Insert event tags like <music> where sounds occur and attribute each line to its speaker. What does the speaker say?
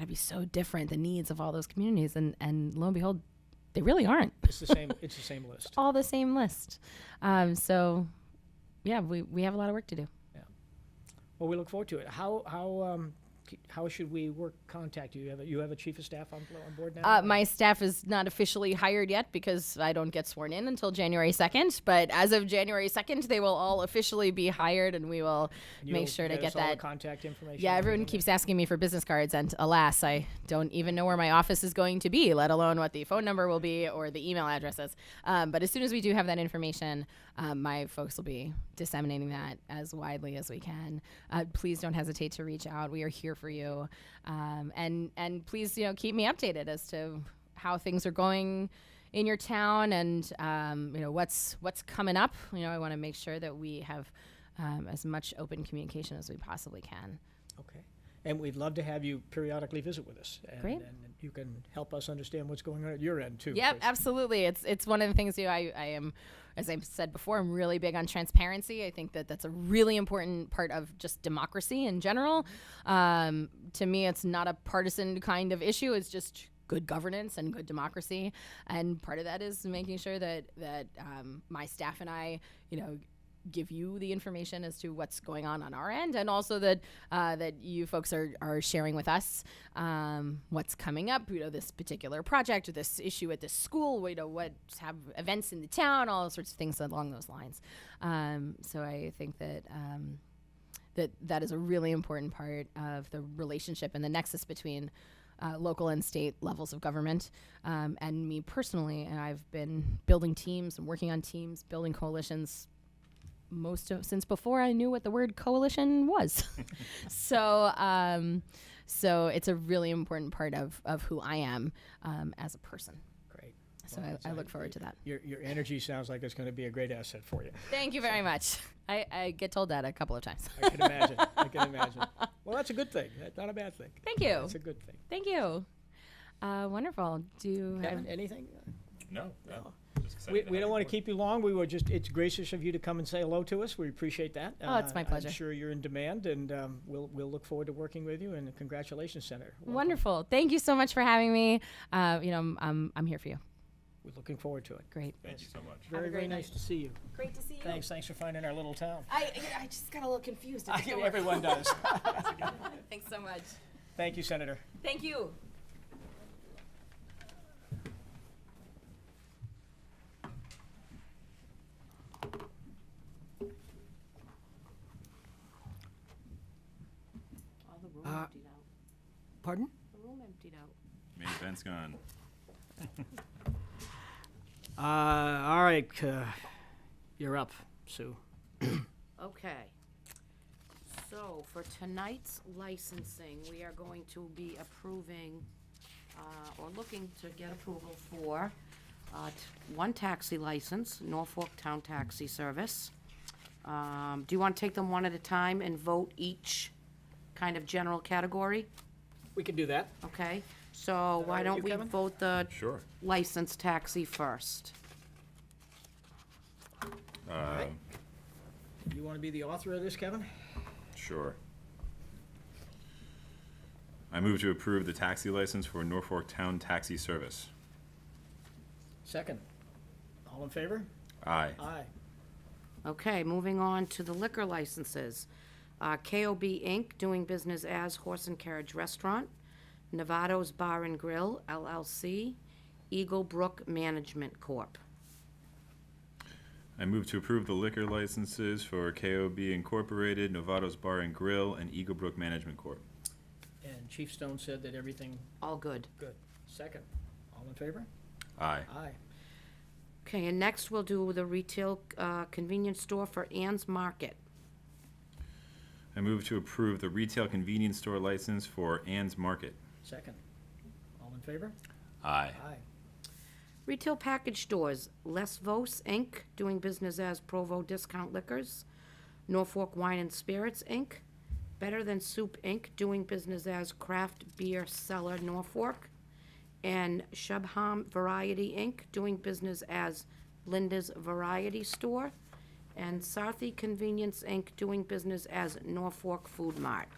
Speaker 1: to be so different the needs of all those communities and and lo and behold they really aren't <laughs>
Speaker 2: It's the same. It's the same list.
Speaker 1: all the same list um, so yeah we, we have a lot of work to do
Speaker 2: Well, we look forward to it. How how um, c- how should we work contact you? You have a, you have a chief of staff on on board now.
Speaker 1: uh, my staff is not officially hired yet because i don't get sworn in until january 2nd but as of january 2nd they will all officially be hired and we will
Speaker 2: You'll
Speaker 1: make sure to
Speaker 2: get us
Speaker 1: get
Speaker 2: all the
Speaker 1: that
Speaker 2: contact information.
Speaker 1: Yeah,
Speaker 2: and
Speaker 1: everyone
Speaker 2: everything
Speaker 1: keeps asking me for business cards, and alas, I don't even know where my office is going to be, let alone what the phone number will be or the email address is. Um, but as soon as we do have that information, um, my folks will be disseminating that as widely as we can. Uh, please don't hesitate to reach out. We are here for you, um, and and please, you know, keep me updated as to how things are going in your town and um, you know what's what's coming up. You know, I want to make sure that we have. Um, as much open communication as we possibly can.
Speaker 2: that. Okay. And we'd love to have you periodically visit with us. And,
Speaker 1: Great.
Speaker 2: And you can help us understand what's going on at your end too.
Speaker 1: Yep,
Speaker 2: Chris.
Speaker 1: absolutely. It's it's one of the things you know, I I am as I said before, I'm really big on transparency. I think that that's a really important part of just democracy in general. Um, to me, it's not a partisan kind of issue. It's just good governance and good democracy, and part of that is making sure that that um, my staff and I, you know, give you the information as to what's going on on our end, and also that uh, that you folks are, are sharing with us um, what's coming up. You know, this particular project or this issue at this school. You know, what have events in the town, all sorts of things along those lines. Um, so I think that. Um, that that is a really important part of the relationship and the nexus between uh, local and state levels of government um, and me personally and i've been building teams and working on teams building coalitions most of since before I knew what the word coalition was. <laughs> so um, so it's a really important part of, of who I am um, as a person.
Speaker 2: Great.
Speaker 1: So
Speaker 2: Well,
Speaker 1: I, I
Speaker 2: so
Speaker 1: look forward to that.
Speaker 2: Your your energy sounds like it's going to be a great asset for you.
Speaker 1: Thank you very much. I, I get told that a couple of times. <laughs>
Speaker 2: I can imagine. I can imagine. Well, that's a good thing. That's not a bad thing.
Speaker 1: Thank you.
Speaker 2: That's a good thing.
Speaker 1: Thank you. Uh, wonderful. Do you have
Speaker 2: Kevin, anything?
Speaker 3: No, no. Just excited
Speaker 2: We, we
Speaker 3: have
Speaker 2: don't
Speaker 3: you
Speaker 2: want
Speaker 3: aboard.
Speaker 2: to keep you long. We were just, it's gracious of you to come and say hello to us. We appreciate that. Uh,
Speaker 1: Oh, it's my pleasure.
Speaker 2: I'm sure you're in demand, and um, we'll, we'll look forward to working with you, and congratulations, Senator. Welcome.
Speaker 1: wonderful? Thank you so much for having me. Uh, you know, I'm, I'm, I'm here for you.
Speaker 2: We're looking forward to it.
Speaker 1: Great.
Speaker 3: Thank you so much.
Speaker 2: Very,
Speaker 1: great
Speaker 2: very
Speaker 1: night.
Speaker 2: nice to see you.
Speaker 1: Great to see you.
Speaker 2: Thanks, thanks for finding our
Speaker 1: <laughs>
Speaker 2: little town.
Speaker 1: I, I just got a little confused.
Speaker 2: Everyone does.
Speaker 1: Thanks so much.
Speaker 2: Thank you, Senator.
Speaker 1: Thank you.
Speaker 4: All the room
Speaker 2: Uh,
Speaker 4: emptied out.
Speaker 2: Pardon?
Speaker 4: The room emptied out.
Speaker 3: Main event's gone.
Speaker 2: Uh, all right, uh, you're up, Sue.
Speaker 4: Okay. So for tonight's licensing, we are going to be approving, uh, or looking to get approval for, uh, t- one taxi license, Norfolk Town Taxi Service. Um, do you want to take them one at a time and vote each kind of general category?
Speaker 2: We can do that.
Speaker 4: Okay, so why
Speaker 2: with you,
Speaker 4: don't we
Speaker 2: Kevin?
Speaker 4: vote the
Speaker 3: Sure.
Speaker 4: license taxi first?
Speaker 2: You want to be the author of this, Kevin?
Speaker 3: Sure. I move to approve the taxi license for Norfolk Town Taxi Service.
Speaker 2: Second. All in favor?
Speaker 3: Aye.
Speaker 2: Aye.
Speaker 4: Okay, moving on to the liquor licenses. Uh, KOB Inc., doing business as Horse and Carriage Restaurant, Novato's Bar and Grill LLC, Eagle Brook Management Corp.
Speaker 3: I move to approve the liquor licenses for KOB Incorporated, Novato's Bar and Grill, and Eagle Brook Management Corp.
Speaker 2: And Chief Stone said that everything
Speaker 4: All good.
Speaker 2: good. Second. All in favor?
Speaker 3: Aye.
Speaker 2: Aye.
Speaker 4: Okay, and next we'll do the retail uh, convenience store for Ann's Market.
Speaker 3: I move to approve the retail convenience store license for Ann's Market.
Speaker 2: Second. All in favor?
Speaker 3: Aye.
Speaker 2: Aye.
Speaker 4: Retail package stores, Les Vos Inc., doing business as Provo Discount Liquors, Norfolk Wine and Spirits Inc., Better Than Soup Inc., doing business as Craft Beer Cellar Norfolk, and Shubham Variety Inc., doing business as Linda's Variety Store, and Sarthy Convenience Inc., doing business as Norfolk Food Mart.